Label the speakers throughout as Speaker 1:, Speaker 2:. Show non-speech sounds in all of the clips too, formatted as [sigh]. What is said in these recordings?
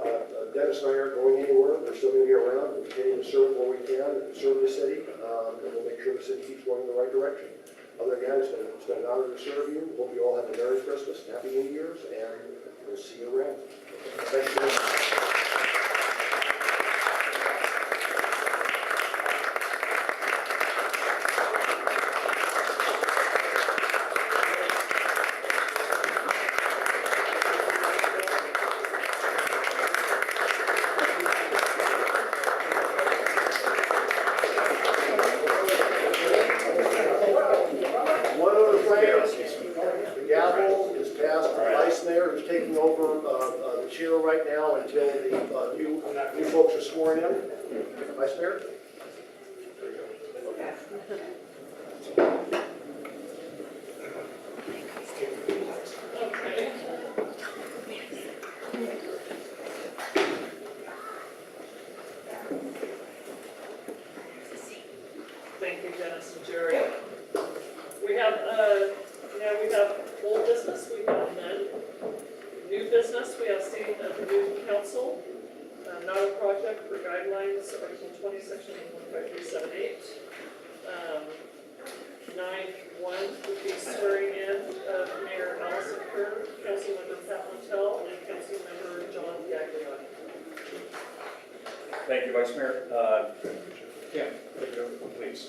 Speaker 1: Uh, Dennis and I aren't going anywhere, they're still gonna be around, we're continuing to serve where we can, and serve the city, um, and we'll make sure the city keeps going in the right direction. Other than that, it's been, it's been an honor to serve you, hope you all have a Merry Christmas, and Happy New Year's, and we'll see you around. Thank you. One other thing, the gavel is passed to the vice mayor, who's taking over uh, uh, the chair right now until the uh, new, new folks are sworn in. Vice mayor?
Speaker 2: Thank you, Dennis and Jerry. We have, uh, now we have old business, we have none. New business, we have seating of the new council, uh, not a project for guidelines, Article twenty, section one five three seven eight. Um, Nine one would be swearing in of Mayor Allison Kerr, Councilmember Pat Montell, and Councilmember John Gaglione.
Speaker 3: Thank you, Vice Mayor. Uh, Kim, take it over, please.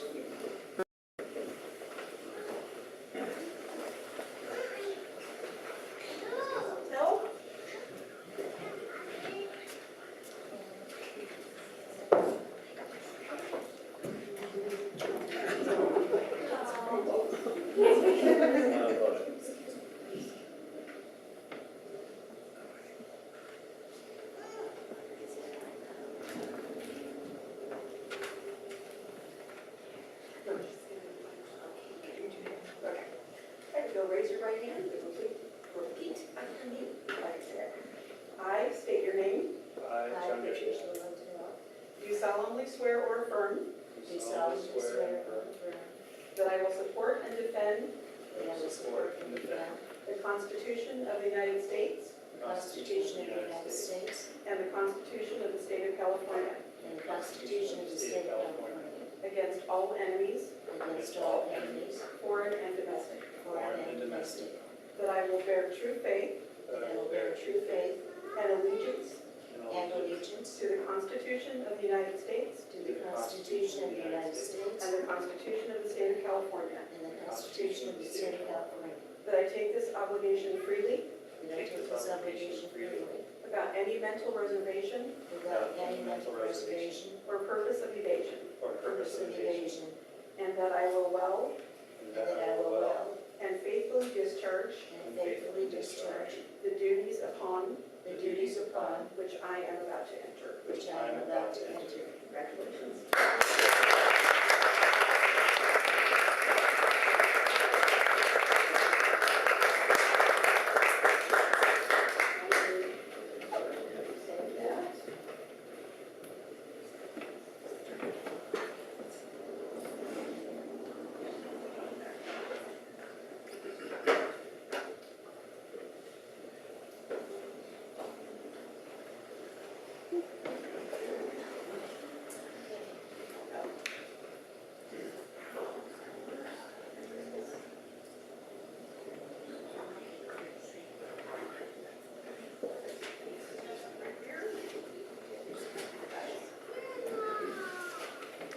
Speaker 4: Okay. All right, go raise your right hand, and repeat, repeat after me, like I said. I state your name.
Speaker 3: I, John Mitchell,
Speaker 4: Do solemnly swear or affirm
Speaker 3: do solemnly swear
Speaker 4: that I will support and defend
Speaker 3: and affirm support and defend
Speaker 4: the Constitution of the United States
Speaker 3: the Constitution of the United States
Speaker 4: and the Constitution of the State of California
Speaker 5: and the Constitution of the State of California
Speaker 4: against all enemies,
Speaker 5: against all enemies,
Speaker 4: foreign and domestic,
Speaker 5: foreign and domestic,
Speaker 4: that I will bear true faith
Speaker 5: that I will bear true faith
Speaker 4: and allegiance
Speaker 5: and allegiance
Speaker 4: to the Constitution of the United States
Speaker 5: to the Constitution of the United States
Speaker 4: and the Constitution of the State of California,
Speaker 5: and the Constitution of the State of California,
Speaker 4: that I take this obligation freely
Speaker 5: that I take this obligation freely
Speaker 4: without any mental reservation
Speaker 5: without any mental reservation
Speaker 4: or purpose of evasion,
Speaker 3: for
Speaker 5: or purpose of evasion,
Speaker 4: and that I will well
Speaker 5: and that I will well
Speaker 4: and faithfully discharge
Speaker 5: and faithfully discharge
Speaker 4: the duties upon
Speaker 5: the duties upon
Speaker 4: which I am about to enter.
Speaker 5: which I am about to enter.
Speaker 4: Congratulations.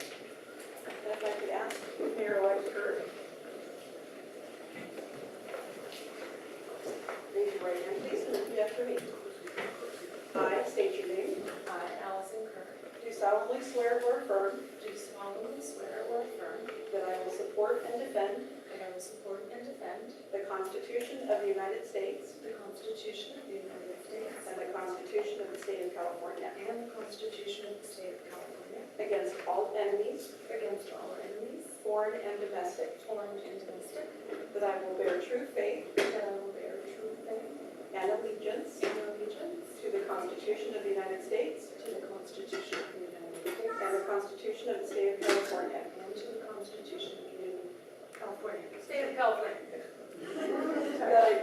Speaker 4: If I could ask Mayor-elect Kurt. Raise your right hand, please, and repeat after me. I state your name.
Speaker 6: I, Allison Kirk,
Speaker 4: Do solemnly swear or affirm
Speaker 6: do solemnly swear or affirm
Speaker 4: that I will support and defend
Speaker 6: that I will support and defend
Speaker 4: the Constitution of the United States
Speaker 6: the Constitution of the United States
Speaker 4: and the Constitution of the State of California
Speaker 6: and the Constitution of the State of California
Speaker 4: against all enemies,
Speaker 6: against all enemies,
Speaker 4: foreign and domestic,
Speaker 6: foreign and domestic,
Speaker 4: that I will bear true faith
Speaker 6: that I will bear true faith
Speaker 4: and allegiance
Speaker 6: and allegiance
Speaker 4: to the Constitution of the United States
Speaker 6: to the Constitution of the United States
Speaker 4: and the Constitution of the State of California.
Speaker 6: and to the Constitution of the United California.
Speaker 4: State of California.
Speaker 6: [laughs]
Speaker 4: That I-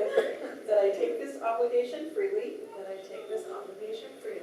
Speaker 4: that I take this obligation freely
Speaker 6: That I take this obligation freely